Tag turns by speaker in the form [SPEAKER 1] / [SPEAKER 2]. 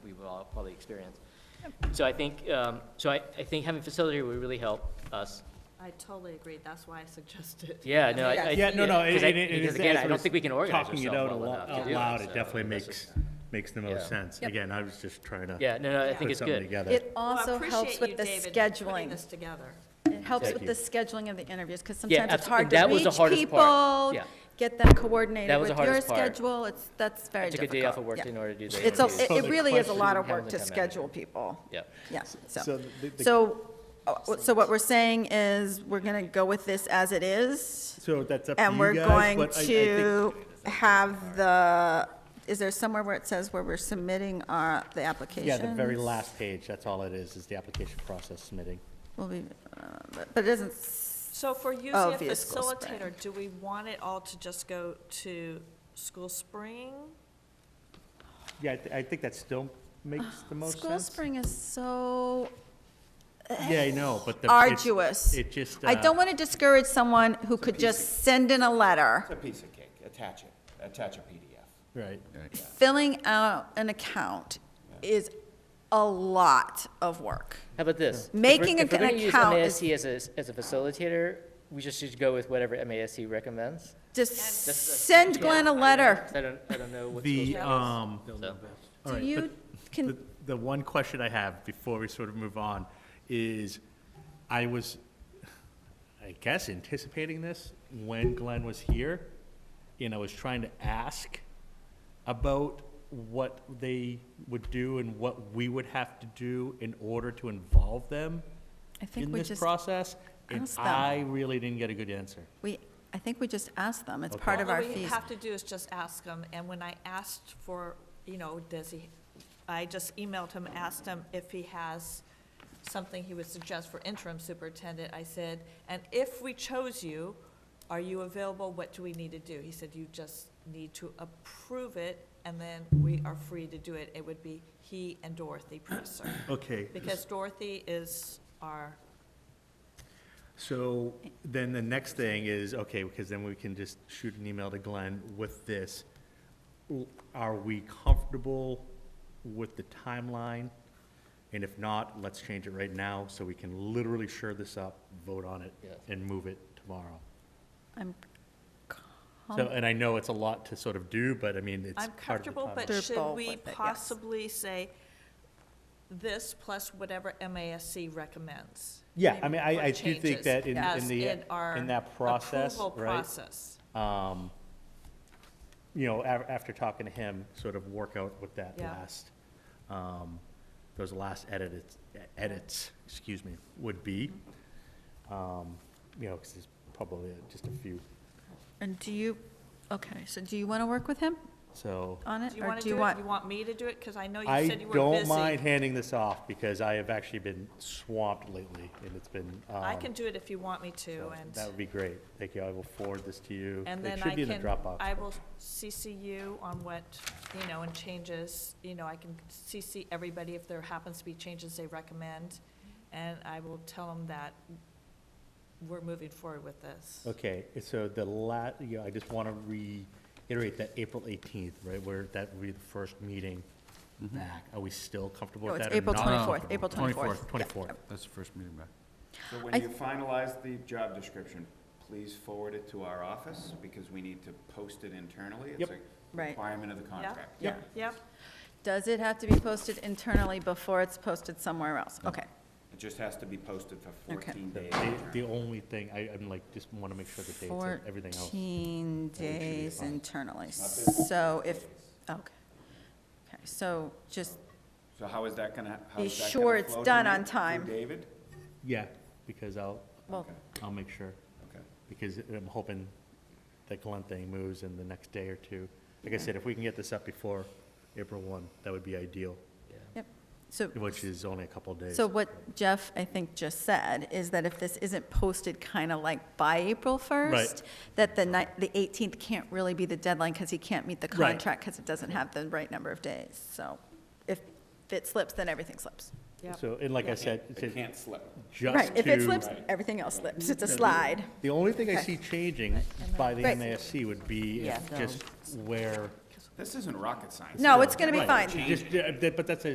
[SPEAKER 1] experience. So I think, um, so I, I think having facility would really help us.
[SPEAKER 2] I totally agree, that's why I suggested.
[SPEAKER 1] Yeah, no, I, I.
[SPEAKER 3] Yeah, no, no,
[SPEAKER 1] because
[SPEAKER 3] it-
[SPEAKER 1] I-
[SPEAKER 3] it- it is-
[SPEAKER 1] Because again,
[SPEAKER 3] as
[SPEAKER 1] I
[SPEAKER 3] we're
[SPEAKER 1] don't think we can organize
[SPEAKER 3] talking
[SPEAKER 1] ourselves
[SPEAKER 3] it out
[SPEAKER 1] well
[SPEAKER 3] alo-
[SPEAKER 1] enough to
[SPEAKER 3] out
[SPEAKER 1] do
[SPEAKER 3] loud,
[SPEAKER 1] it,
[SPEAKER 3] it
[SPEAKER 1] so
[SPEAKER 3] definitely
[SPEAKER 1] that's
[SPEAKER 3] makes,
[SPEAKER 1] what-
[SPEAKER 3] makes the
[SPEAKER 1] Yeah.
[SPEAKER 3] most sense.
[SPEAKER 4] Yep.
[SPEAKER 3] Again, I was just trying to.
[SPEAKER 1] Yeah, no, no, I
[SPEAKER 2] Yeah.
[SPEAKER 1] think
[SPEAKER 3] Put
[SPEAKER 1] it's
[SPEAKER 3] something
[SPEAKER 1] good.
[SPEAKER 3] together.
[SPEAKER 4] It
[SPEAKER 2] Well, I
[SPEAKER 4] also helps
[SPEAKER 2] appreciate
[SPEAKER 4] with
[SPEAKER 2] you,
[SPEAKER 4] the
[SPEAKER 2] David, Putting
[SPEAKER 4] scheduling.
[SPEAKER 2] this together.
[SPEAKER 4] It helps
[SPEAKER 1] Thank
[SPEAKER 4] with
[SPEAKER 1] you.
[SPEAKER 4] the scheduling of the interviews, because
[SPEAKER 1] Yeah,
[SPEAKER 4] sometimes it's
[SPEAKER 1] abso-
[SPEAKER 4] hard to
[SPEAKER 1] that was the
[SPEAKER 4] reach
[SPEAKER 1] hardest part.
[SPEAKER 4] people,
[SPEAKER 1] Yeah.
[SPEAKER 4] get them coordinated
[SPEAKER 1] That was the
[SPEAKER 4] with your
[SPEAKER 1] hardest part.
[SPEAKER 4] schedule, it's, that's
[SPEAKER 1] I
[SPEAKER 4] very
[SPEAKER 1] took a
[SPEAKER 4] difficult.
[SPEAKER 1] day off of work
[SPEAKER 4] Yeah.
[SPEAKER 1] in order to do the
[SPEAKER 4] It's, a-
[SPEAKER 1] interviews.
[SPEAKER 4] it- it really is a lot of
[SPEAKER 1] Having
[SPEAKER 4] work
[SPEAKER 1] to
[SPEAKER 4] to
[SPEAKER 1] come out.
[SPEAKER 4] schedule people.
[SPEAKER 1] Yeah.
[SPEAKER 4] Yeah,
[SPEAKER 3] So
[SPEAKER 4] so,
[SPEAKER 3] the- the-
[SPEAKER 4] so, uh, so what we're saying is, we're gonna go with this as it is.
[SPEAKER 3] So that's up to
[SPEAKER 4] And
[SPEAKER 3] you
[SPEAKER 4] we're
[SPEAKER 3] guys,
[SPEAKER 4] going
[SPEAKER 3] but I, I think.
[SPEAKER 4] to have the, is there somewhere where it says where we're submitting our, the application?
[SPEAKER 3] Yeah, the very last page, that's all it is, is the application process submitting.
[SPEAKER 4] Will be, uh, but- but it isn't, s-
[SPEAKER 2] So if we're using
[SPEAKER 4] Oh,
[SPEAKER 2] a
[SPEAKER 4] vehicle spraying.
[SPEAKER 2] facilitator, do we want it all to just go to school spring?
[SPEAKER 3] Yeah, I, thi- I think that still makes the most
[SPEAKER 4] school
[SPEAKER 3] sense.
[SPEAKER 4] spring is so
[SPEAKER 3] Yeah, I know, but the. it's-
[SPEAKER 4] arduous.
[SPEAKER 3] It just.
[SPEAKER 4] I
[SPEAKER 3] uh,
[SPEAKER 4] don't want to discourage someone who could
[SPEAKER 5] piece of-
[SPEAKER 4] just send in a letter,
[SPEAKER 5] It's a piece of cake, attach it, attach a PDF.
[SPEAKER 3] Right.
[SPEAKER 4] filling out an account is a lot of work.
[SPEAKER 1] How about this? If we're-
[SPEAKER 4] Making
[SPEAKER 1] if we're
[SPEAKER 4] an
[SPEAKER 1] gonna use
[SPEAKER 4] account is-
[SPEAKER 1] MASC as a, as a facilitator, we just should go with whatever MASC recommends.
[SPEAKER 4] Just
[SPEAKER 1] That's- that's-
[SPEAKER 4] send Glenn a letter.
[SPEAKER 1] 'Cause I don't, I don't know what's.
[SPEAKER 3] The, um,
[SPEAKER 1] So-
[SPEAKER 3] all
[SPEAKER 4] Do
[SPEAKER 3] right,
[SPEAKER 4] you,
[SPEAKER 3] but- The,
[SPEAKER 4] can,
[SPEAKER 3] the one question I have before we sort of move on is, I was, I guess, anticipating this when Glenn was here, and I was trying to ask about what they would do and what we would have to do in order to involve them
[SPEAKER 4] I think
[SPEAKER 3] in
[SPEAKER 4] we
[SPEAKER 3] this
[SPEAKER 4] just,
[SPEAKER 3] process, and
[SPEAKER 4] ask them.
[SPEAKER 3] I really didn't get a good answer.
[SPEAKER 4] we, I think we just asked them. It's part of
[SPEAKER 2] All
[SPEAKER 4] our
[SPEAKER 2] we
[SPEAKER 4] fees.
[SPEAKER 2] have to do is just ask him, and when I asked for, you know, does he, I just emailed him, asked him if he has something he would suggest for interim superintendent. I said, and if we chose you, are you available? What do we need to do? He said, you just need to approve it, and then we are free to do it. It would be he and Dorothy Presser,
[SPEAKER 3] Okay.
[SPEAKER 2] because Dorothy is our,
[SPEAKER 3] So then the next thing is, okay, because then we can just shoot an email to Glenn with this. L- Are we comfortable with the timeline? And if not, let's change it right now so we can literally shore this up, vote on it,
[SPEAKER 1] Yes.
[SPEAKER 3] and move it tomorrow.
[SPEAKER 4] I'm
[SPEAKER 3] So, and I know it's a lot to sort of do, but I mean, it's
[SPEAKER 2] I'm
[SPEAKER 3] part of the
[SPEAKER 2] comfortable, but
[SPEAKER 3] timeline.
[SPEAKER 4] They're
[SPEAKER 2] should
[SPEAKER 4] bold
[SPEAKER 2] we
[SPEAKER 4] with it, yes.
[SPEAKER 2] possibly say this plus whatever MASC recommends?
[SPEAKER 3] Yeah, I mean, I,
[SPEAKER 2] Or
[SPEAKER 3] I do think
[SPEAKER 2] changes
[SPEAKER 3] that in,
[SPEAKER 2] as
[SPEAKER 3] in the,
[SPEAKER 2] our
[SPEAKER 3] in that process,
[SPEAKER 2] approval
[SPEAKER 3] right?
[SPEAKER 2] process.
[SPEAKER 3] um, you know, af- after talking to him, sort of work out with that
[SPEAKER 2] Yeah.
[SPEAKER 3] last, um, those last edits, edits, excuse me, would be. Um, you know, because there's probably just a few,
[SPEAKER 4] And do you, okay, so do you want to work with him
[SPEAKER 3] so.
[SPEAKER 4] on it?
[SPEAKER 2] Do you
[SPEAKER 4] or
[SPEAKER 2] want to do it? You want me to do it? Because I know Oh, you
[SPEAKER 3] I
[SPEAKER 2] said you were
[SPEAKER 3] don't mind
[SPEAKER 2] busy.
[SPEAKER 3] handing this off because I have actually been swamped lately and it's been, um.
[SPEAKER 2] I can do it if you want me to,
[SPEAKER 3] so That
[SPEAKER 2] and,
[SPEAKER 3] would be great. Thank you. I will forward this to you.
[SPEAKER 2] and then
[SPEAKER 3] It
[SPEAKER 2] I
[SPEAKER 3] should be in the
[SPEAKER 2] can,
[SPEAKER 3] Dropbox.
[SPEAKER 2] I
[SPEAKER 3] but-
[SPEAKER 2] will CC you on what, you know, and changes, you know, I can CC everybody if there happens to be changes they recommend, and I will tell them that we're moving forward with this.
[SPEAKER 3] Okay, so the la, you know, I just want to reiterate that April 18th, right, where that would be the first meeting
[SPEAKER 5] Mm-hmm.
[SPEAKER 3] back. Are we still comfortable
[SPEAKER 4] No,
[SPEAKER 3] with
[SPEAKER 4] it's
[SPEAKER 3] that or
[SPEAKER 4] April
[SPEAKER 3] not?
[SPEAKER 4] 24th, April 24th.
[SPEAKER 3] 24th, 24th.
[SPEAKER 6] That's the first meeting back.
[SPEAKER 5] So
[SPEAKER 4] I-
[SPEAKER 5] when you finalize the job description, please forward it to our office, because we need to post it internally.
[SPEAKER 3] Yep.
[SPEAKER 5] It's a
[SPEAKER 4] Right.
[SPEAKER 5] requirement of the contract.
[SPEAKER 4] Yeah.
[SPEAKER 2] Yep,
[SPEAKER 4] Does it have to be posted internally before it's posted somewhere else? Okay.
[SPEAKER 5] It just has to be posted for
[SPEAKER 4] Okay.
[SPEAKER 5] fourteen days.
[SPEAKER 3] The- The only thing, I, I'm like, just want to make sure the dates and everything else.
[SPEAKER 4] 14 days internally.
[SPEAKER 5] Not business
[SPEAKER 4] So if, oh, okay. Okay, so just,
[SPEAKER 5] So how is that gonna, how
[SPEAKER 4] Be
[SPEAKER 5] is that gonna
[SPEAKER 4] sure it's
[SPEAKER 5] flow
[SPEAKER 4] done
[SPEAKER 5] through-
[SPEAKER 4] on
[SPEAKER 5] through
[SPEAKER 4] time.
[SPEAKER 5] David?
[SPEAKER 3] Yeah, because I'll,
[SPEAKER 4] well,
[SPEAKER 5] Okay,
[SPEAKER 3] I'll make sure,
[SPEAKER 5] okay.
[SPEAKER 3] because I'm hoping that Glen thing moves in the next day or two. Like I said, if we can get this up before April 1, that would be ideal,
[SPEAKER 4] yep. So,
[SPEAKER 3] which is only a couple of days.
[SPEAKER 4] so what Jeff, I think, just said is that if this isn't posted kind of like by April 1st, that the ni, the 18th can't really be the deadline because he can't meet the
[SPEAKER 3] Right.
[SPEAKER 4] contract because it doesn't have the right number of days. So if it slips, then everything slips.
[SPEAKER 2] yep.
[SPEAKER 3] So, and like I said,
[SPEAKER 5] It can't slip.
[SPEAKER 3] just
[SPEAKER 4] Right, if it
[SPEAKER 3] to-
[SPEAKER 4] slips, everything else slips. It's a slide.
[SPEAKER 3] The only thing I
[SPEAKER 4] Okay.
[SPEAKER 3] see changing by the
[SPEAKER 4] Right.
[SPEAKER 3] MASC would be if
[SPEAKER 4] Yeah.
[SPEAKER 3] just where.
[SPEAKER 5] This isn't rocket science.
[SPEAKER 4] No, it's going to be
[SPEAKER 3] Right,
[SPEAKER 4] fine.
[SPEAKER 3] just- yeah, that- But that's a